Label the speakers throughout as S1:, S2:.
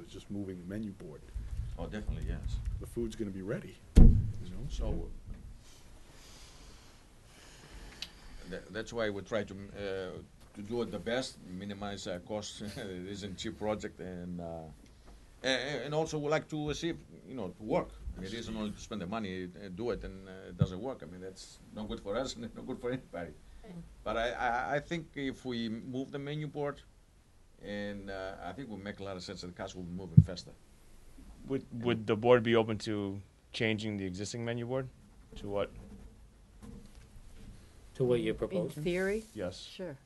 S1: is just moving the menu board.
S2: Oh, definitely, yes.
S1: The food's gonna be ready, you know, so.
S2: Tha- That's why we try to, m- uh, to do it the best, minimize our costs. It isn't cheap project and, uh, a- a- and also we like to see, if, you know, to work. It isn't only to spend the money, uh, do it and uh, it doesn't work. I mean, that's not good for us and not good for anybody. But I, I, I think if we move the menu board and, uh, I think we make a lot of sense that the cost will be moving faster.
S3: Would, would the board be open to changing the existing menu board? To what?
S4: To what you're
S5: In
S4: proposing?
S5: theory,
S3: Yes.
S5: sure.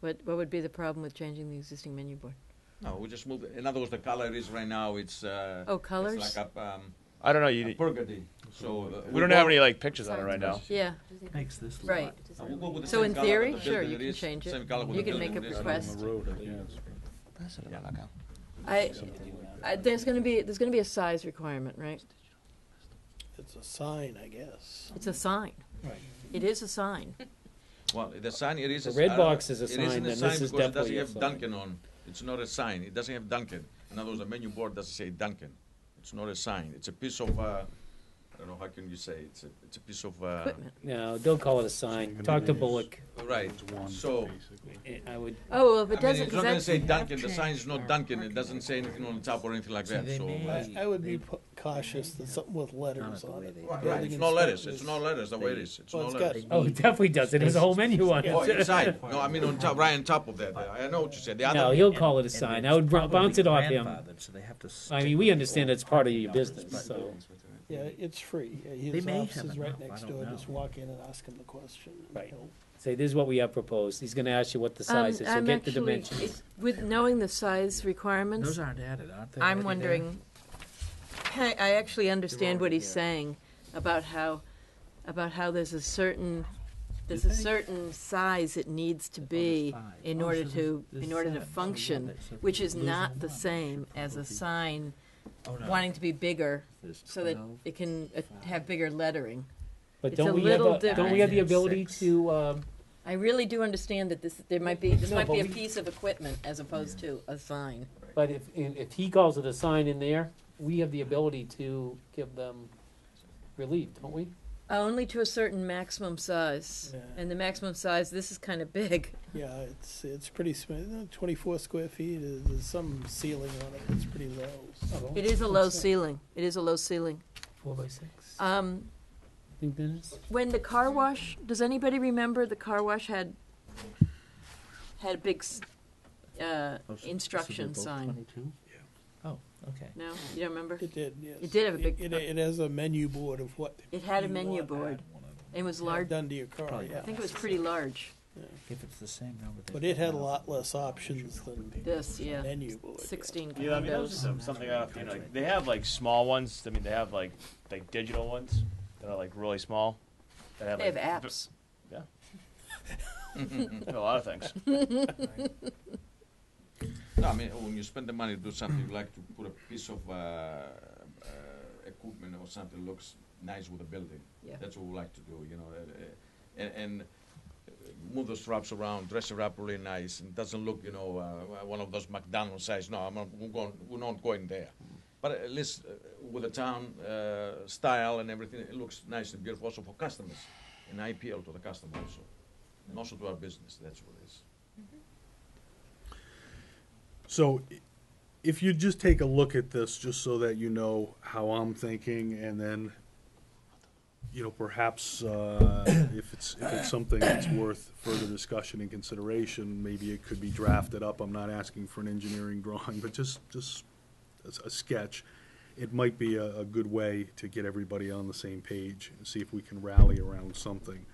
S5: What, what would be the problem with changing the existing menu board?
S2: No, we just moved, it. in other words, the color is right now, it's, uh.
S5: Oh,
S2: It's
S5: colours?
S2: like a, um,
S3: I don't know.
S2: a
S3: You,
S2: burgundy, so. uh,
S3: we don't have
S2: we'll-
S3: any like pictures on it right now.
S5: Yeah,
S6: Makes this
S5: Right.
S6: lot.
S2: uh, we'll go with the
S5: So
S2: same
S5: in
S2: colour
S5: theory,
S2: with the
S5: sure,
S2: building
S5: you
S2: it
S5: can
S2: is,
S5: change it.
S2: Same color with
S5: You
S2: the
S5: can
S2: building
S5: make a
S2: it is.
S1: Out on
S5: request.
S1: the road, I guess.
S5: I, I, there's gonna be, there's gonna be a size requirement, right?
S6: It's a sign, I guess.
S5: It's a sign.
S6: Right.
S5: It is a sign.
S2: Well, the sign, it is.
S4: The
S2: a s-
S4: red
S2: uh,
S4: box is a
S2: it
S4: sign,
S2: isn't a
S4: then
S2: sign
S4: this is
S2: because it
S4: definitely a
S2: Doesn't have
S4: sign.
S2: Dunkin' on, it's not a sign, it doesn't have Dunkin'. In other words, the menu board doesn't say Dunkin', it's not a sign, it's a piece of, uh, I don't know, how can you say, it's a, it's a piece of, uh,
S5: Equipment.
S4: No, don't call it a sign. Talk to Bullock.
S2: right, so.
S4: Eh, I would,
S5: Oh, well, if
S2: I
S5: it
S2: mean,
S5: doesn't,
S2: it's
S5: 'cause
S2: not gonna
S5: that's,
S2: say Dunkin', the sign's not Dunkin', it doesn't say anything on the top or anything like that, so.
S6: I, I would be pu- cautious that something with letters on it.
S2: Right, it's no letters, it's no letters, the way it is, it's
S6: Well,
S2: no
S6: it's
S2: letters.
S6: got-
S4: oh, it definitely does. It has a whole menu on
S2: Oh,
S4: it.
S2: inside. No, I mean on top, right on top of that. I know what you said. The
S4: No,
S2: other,
S4: he'll call it a sign. I would bou- bounce it off him. I mean, we understand it's part of your business, so.
S6: Yeah, it's free. Yeah,
S7: They
S6: His
S7: may
S6: office
S7: have
S6: is right
S7: enough, I
S6: next
S7: don't
S6: door.
S7: know.
S6: Just walk in and ask him the question. and
S4: Right.
S6: he'll-
S4: Say, this is what we have proposed. He's gonna ask you what the
S5: um,
S4: size is, so
S5: I'm
S4: get the
S5: actually,
S4: dimensions.
S5: it- with knowing the size requirements,
S7: Those aren't added, aren't they?
S5: I'm
S7: already there?
S5: wondering, I, I actually understand what
S7: already
S5: he's
S7: there.
S5: saying about how, about how there's a certain, there's a certain size it needs to be
S7: five.
S5: in
S7: Oh,
S5: order
S7: so
S5: to,
S7: there's-
S5: in
S7: there's
S5: order to
S7: seven. So yeah,
S5: function,
S7: that's a-
S5: which is
S7: losing
S5: not the
S7: one.
S5: same as a sign
S7: Oh, no.
S5: wanting to be bigger
S7: There's
S5: so that
S7: 12.
S5: it can uh, have bigger lettering.
S4: But
S5: it's a
S4: don't we have,
S5: little
S4: a- don't we have the
S7: different.
S4: ability
S7: Six.
S4: to, um,
S5: I really do understand that this, there might be, this
S4: No,
S5: might
S4: but
S5: be a
S4: we-
S5: piece of equipment as opposed to a sign.
S4: but if, if if he calls it a sign in there, we have the ability to give them relief, don't we?
S5: Uh, Only to a certain maximum size.
S6: Yeah.
S5: And the maximum size, this is kind of big.
S6: Yeah, it's, it's pretty smooth. Twenty-four square feet, is- there's some ceiling on it. It's pretty low. so-
S5: It is a low ceiling. It is a low ceiling.
S4: Four by six.
S5: Um,
S4: Think that is-
S5: when the car wash, does anybody remember the car wash had had a big s- uh,
S7: Oh, so- so they're
S5: instruction
S7: both
S5: sign?
S7: 22? Oh, okay.
S5: No, you don't remember?
S6: It did, yes.
S5: It did have a big-
S6: It, it has a menu board of what.
S5: It had a
S6: you
S5: menu
S6: want
S5: board. It was large.
S6: Done to your car,
S7: Probably
S6: yeah.
S5: I think it was pretty large.
S7: If it's the same number. they
S6: But it had a
S7: put
S6: lot
S7: out.
S6: less options than
S5: This, yeah,
S6: menu board. yeah.
S5: sixteen
S3: Yeah, I mean, that was
S5: condos.
S3: just some- something I don't, you know, like, they have like small ones. I mean, they have like like digital ones that are like really small. That have,
S5: They have
S3: like, v-
S5: apps.
S3: A lot of things.
S2: no, I mean when you spend the money to do something, you like to put a piece of uh, uh, equipment or something looks nice with the building.
S5: Yeah.
S2: That's what we like to do, you know, uh, uh, and, and move the straps around, dress it up really nice, and doesn't look, you know, uh, one of those McDonald's size. No, I'm not, we're, going, we're not going there. But at least uh, with the town uh, style and everything, it looks nice and beautiful also for customers, and I appeal to the customer also, and also to our business. That's what it is.
S1: So i- if you just take a look at this, just so that you know how I'm thinking and then, you know, perhaps, uh, if it's, if it's something that's worth further discussion and consideration, maybe it could be drafted up. I'm not asking for an engineering drawing, but just, just as a sketch. It might be a, a good way to get everybody on the same page and see if we can rally around something.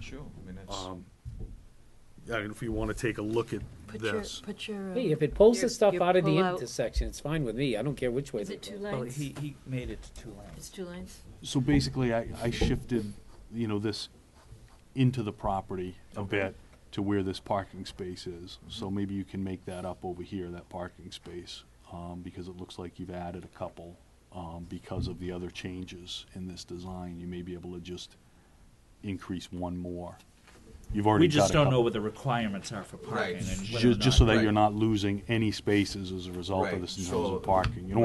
S2: Sure, I mean, that's.
S1: Um, I mean, if you wanna take a look at
S5: Put your,
S1: this.
S5: put your. uh,
S4: Hey, if it pulls
S5: your-
S4: the stuff
S5: your
S4: out of the
S5: pull-out-
S4: intersection, it's fine with me. I don't care which way.
S5: Is
S4: they
S5: it
S4: go.
S5: two
S7: Well,
S5: lanes?
S7: he, he made it to two lanes.
S5: It's two lanes?
S1: So basically, I, I shifted, you know, this into the property a bit to where this parking space is.
S7: Mm-hmm.
S1: So maybe you can make that up over here, that parking space, um, because it looks like you've added a couple, um, because of the other changes in this design. You may be able to just increase one more, You've already
S7: We
S1: got
S7: just
S1: a
S7: don't
S1: couple.
S7: know what the requirements are for parking
S2: Right.
S7: and whether or
S1: Just, just so
S7: not-
S1: that
S2: Right.
S1: you're not losing any spaces as a result of
S2: Right,
S1: this in
S2: so-
S1: terms of parking. You don't